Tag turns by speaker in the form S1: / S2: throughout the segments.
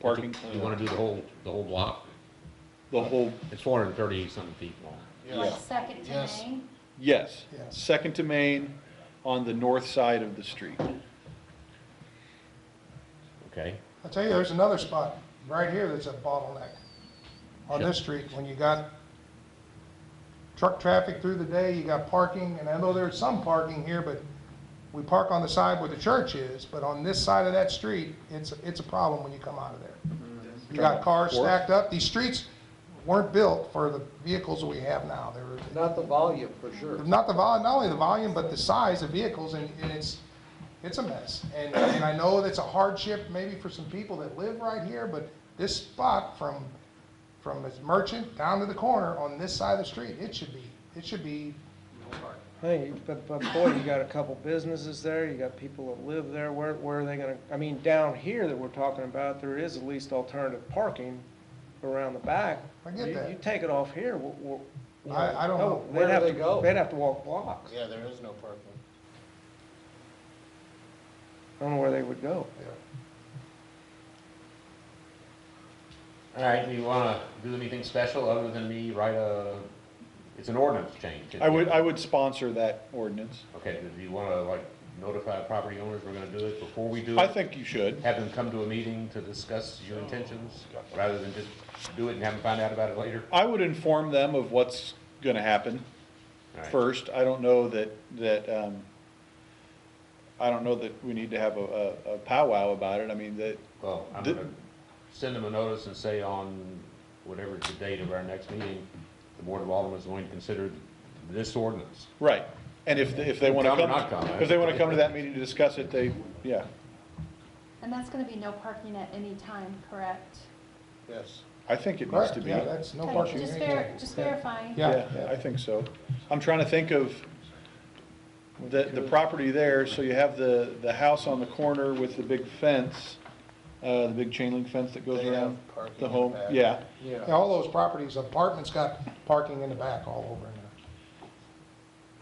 S1: parking,
S2: You wanna do the whole, the whole block?
S1: the whole,
S2: It's four hundred and thirty something feet long.
S3: Like second to
S4: Yes.
S3: Main?
S1: yes.
S4: Yeah.
S1: Second to Main on the north side of the street.
S2: Okay,
S4: I'll tell you, there's another spot right here that's a bottleneck on this street. When you got truck traffic through the day, you got parking, and I know there's some parking here, but we park on the side where the church is, but on this side of that street, it's, it's a problem when you come out of there. You got cars stacked up. These streets weren't built for the vehicles that we have now. They were,
S5: Not the volume, for sure.
S4: not the vol, not only the volume, but the size of vehicles, and, and it's, it's a mess. And, and I know that's a hardship maybe for some people that live right here, but this spot from, from this merchant down to the corner on this side of the street, it should be, it should be
S6: Hey, but, but boy, you got a couple businesses there, you got people that live there, where, where are they gonna, I mean, down here that we're talking about, there is at least alternative parking around the back.
S4: I get
S6: You-
S4: that.
S6: You take it off here, wh- wh- you
S4: I- I don't know.
S6: they'd
S5: Where do
S6: have
S5: they
S6: to-
S5: go?
S6: They'd have to walk blocks.
S5: Yeah, there is no parking.
S6: I don't know where they would go.
S2: all right, do you wanna do anything special other than me write a, it's an ordinance change?
S1: I would, I would sponsor that ordinance.
S2: Okay, do you wanna like notify property owners we're gonna do it before we do it?
S1: I think you should.
S2: Have them come to a meeting to discuss your intentions, rather than just do it and have them find out about it later?
S1: I would inform them of what's gonna happen
S2: All right.
S1: first. I don't know that, that, um, I don't know that we need to have a, a a powwow about it. I mean, that,
S2: Well, I'm
S1: The-
S2: gonna send them a notice and say on whatever the date of our next meeting, the Board of Alderman is going to consider this ordinance.
S1: right. And if, if they wanna
S2: Come or
S1: come,
S2: not come, I-
S1: if they wanna come to that meeting to discuss it, they, yeah.
S3: And that's gonna be no parking at any time, correct?
S5: Yes.
S1: I think it needs
S4: correct.
S1: to be.
S4: Yeah, that's no
S3: Okay,
S4: parking.
S3: Just
S4: Yeah,
S3: ver, just verifying.
S1: Yeah, I
S4: yeah.
S1: think so. I'm trying to think of the, the property there, so you have the, the house on the corner with the big fence, uh, the big chain link fence that goes
S5: They have
S1: around
S5: parking in
S1: the
S5: the
S1: home,
S5: back.
S1: yeah.
S4: Yeah, all those properties, apartments got parking in the back all over in there.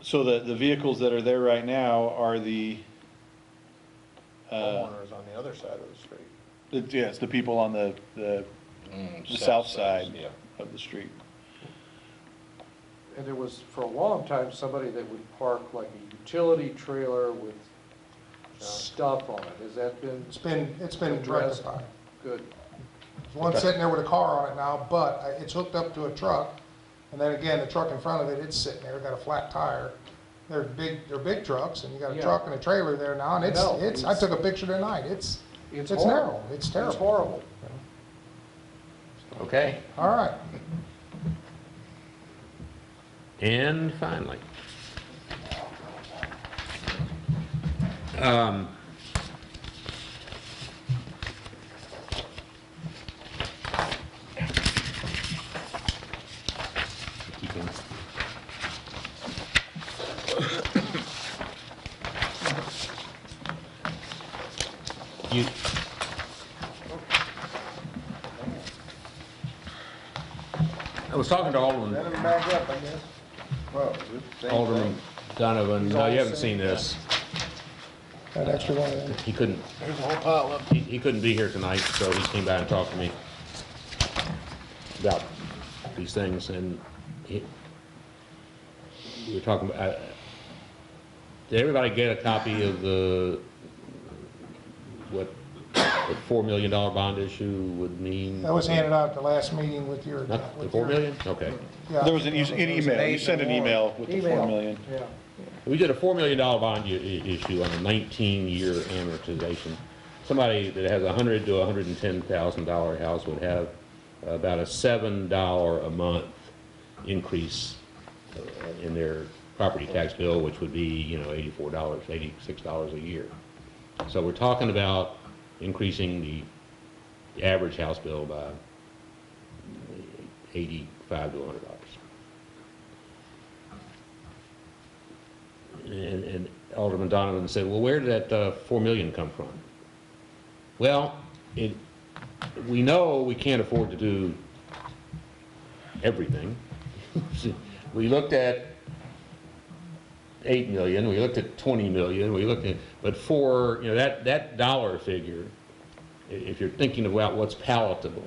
S1: So the, the vehicles that are there right now are the, uh,
S5: Homeowners on the other side of the street.
S1: the- yes, the people on the, the,
S5: Mm,
S1: the south side of the street.
S5: And there was, for a long time, somebody that would park like a utility trailer with stuff on it. Has that been
S4: It's been, it's been rectified.
S5: good?
S4: There's one sitting there with a car on it now, but I- it's hooked up to a truck. And then again, the truck in front of it, it's sitting there, got a flat tire. They're big, they're big trucks and you got a
S5: Yeah.
S4: truck and a trailer there now and it's,
S5: No,
S4: it's, I
S5: it's-
S4: took a picture tonight. It's, it's
S5: horrible.
S4: narrow, it's
S5: It's
S4: terrible.
S5: horrible.
S2: Okay,
S4: All right.
S2: and finally. Um, keep on. You, I was talking to Alderman
S4: back up, I guess.
S2: Alderman Donovan, no, you haven't seen this.
S4: That extra one in.
S2: He couldn't. There's a whole pile of. He, he couldn't be here tonight, so he came by and talked to me about these things, and he, we were talking about, I- did everybody get a copy of the, what, the four million dollar bond issue would mean?
S4: That was handed out at the last meeting with your.
S2: Not, the
S4: with
S2: four
S4: your-
S2: million? Okay.
S4: Yeah.
S1: There was an, e- an email, you sent an email with the four
S4: Email.
S1: million.
S5: Yeah.
S2: We did a $4 million bond i- i- issue on a 19-year amortization. Somebody that has a $100,000 to $110,000 house would have about a $7 a month increase uh, in their property tax bill, which would be, you know, $84, $86 a year. So we're talking about increasing the average house bill by 85 to $100. And, and Alderman Donovan said, well, where did that uh, four million come from? Well, it, we know we can't afford to do everything. We looked at eight million, we looked at twenty million, we looked at, but for, you know, that, that dollar figure i- if you're thinking about what's palatable,